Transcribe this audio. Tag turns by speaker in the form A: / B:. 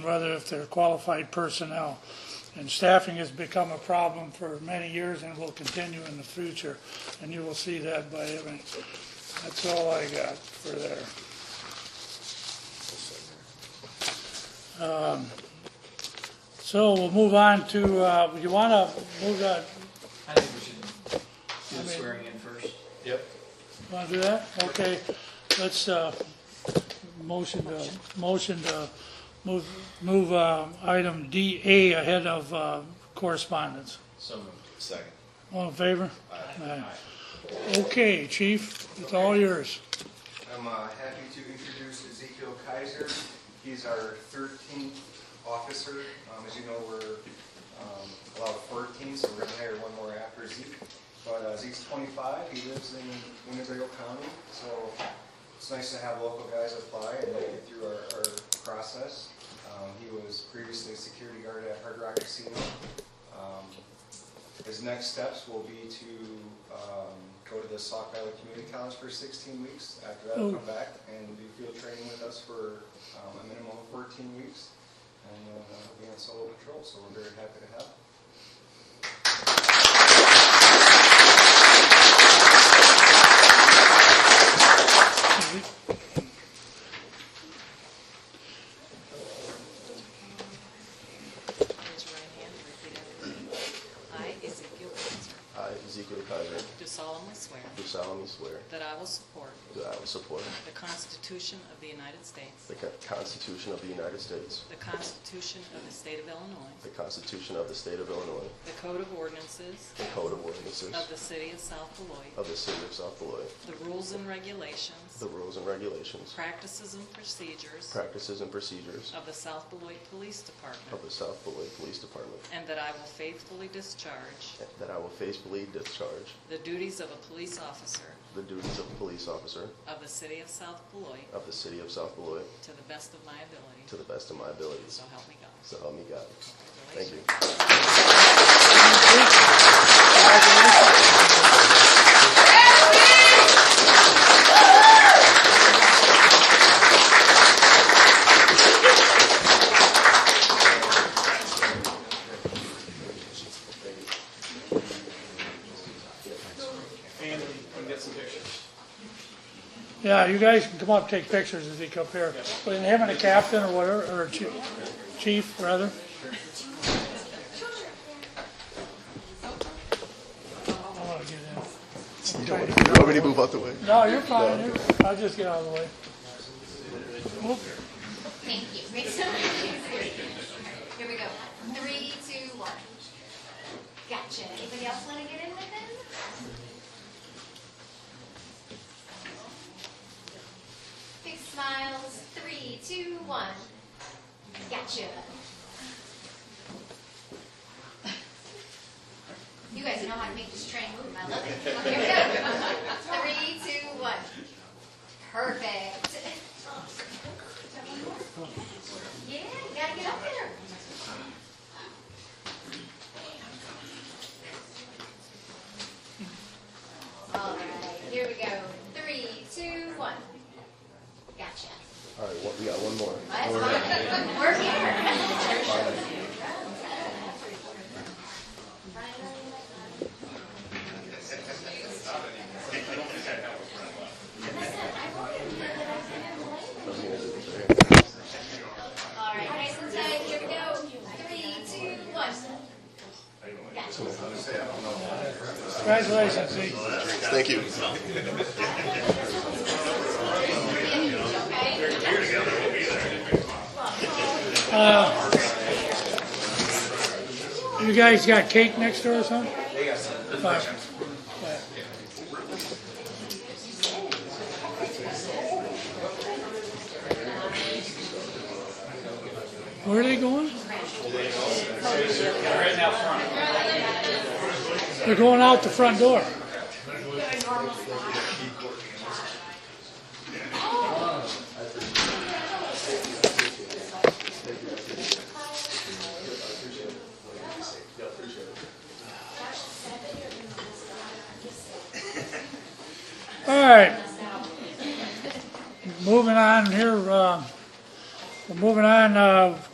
A: whether if they're qualified personnel. And staffing has become a problem for many years and will continue in the future, and you will see that by having, that's all I got for there. Um, So we'll move on to, uh, you want to move that,
B: I think we should do the
A: mean-
B: swearing in first.
C: Yep.
A: want to do that? Okay, let's, uh, motion to, motion to move, move uh, item DA ahead of uh, correspondence.
B: So moved.
C: Second.
A: All in favor? Aye. Okay, chief, it's all yours.
D: I'm uh, happy to introduce Ezekiel Kaiser. He's our 13th officer. Um, As you know, we're um, allowed 14, so we're going to hire one more after Zeke. But uh, Zeke's 25, he lives in Winnebago County, so it's nice to have local guys apply and make it through our our process. Um, He was previously a security guard at Hard Rock Casino. Um, his next steps will be to um, go to the Sauk Valley Community College for 16 weeks. After that,
A: Oh.
D: come back and do field training with us for um, a minimum of 14 weeks. And then uh, he'll be on solo patrol, so we're very happy to have him.
E: Raise your right hand and repeat after me. I, Ezekiel Windsor,
F: I, Ezekiel Kaiser,
E: do solemnly swear
F: do solemnly swear
E: that I will support
F: that I will support
E: the Constitution of the United States,
F: the Co- Constitution of the United States,
E: the Constitution of the State of Illinois,
F: the Constitution of the State of Illinois,
E: the Code of Ordinances
F: the Code of Ordinances
E: of the City of South Beloit,
F: of the City of South Beloit,
E: the rules and regulations,
F: the rules and regulations,
E: practices and procedures
F: practices, and procedures
E: of the South Beloit Police
F: of
E: Department,
F: the South Beloit Police Department,
E: and that I will faithfully discharge
F: and that I will faithfully discharge
E: the duties of a police officer
F: the duties of a police officer
E: of the City of South Beloit
F: of the City of South Beloit
E: to the best of my
F: to
E: ability.
F: the best of my abilities.
E: So help me God.
F: So help me God. Thank
E: Congratulations.
F: you.
C: And we get some pictures.
A: Yeah, you guys can come up, and take pictures as they come here. But in having a captain or whatever, or chi- chief, rather. I wanna get in.
F: You want me to move out the way?
A: No, you're fine, you're, I'll just get out of the way. Oop,
G: Thank you. Makes it easier. Here we go. Three, two, one. Gotcha. Anybody else want to get in with him? Big smiles. Three, two, one. Gotcha. You guys know how to make this train move. I love it. Here we go. Three, two, one. Perfect. Yeah, you gotta get up there. All right, here we go. Three, two, one. Gotcha.
F: All right, one- we got one more.
G: That's fine. We're here. All right, nice and tight. Here we go. Three, two, one. Gotcha.
A: congratulations, Zeke.
F: Thank you.
G: Okay.
A: Uh, You guys got cake next door or something?
D: They got some.
A: Fine. Where are they going?
B: Right now, front.
A: They're going out the front door. All right. Moving on here, uh, we're moving on, uh,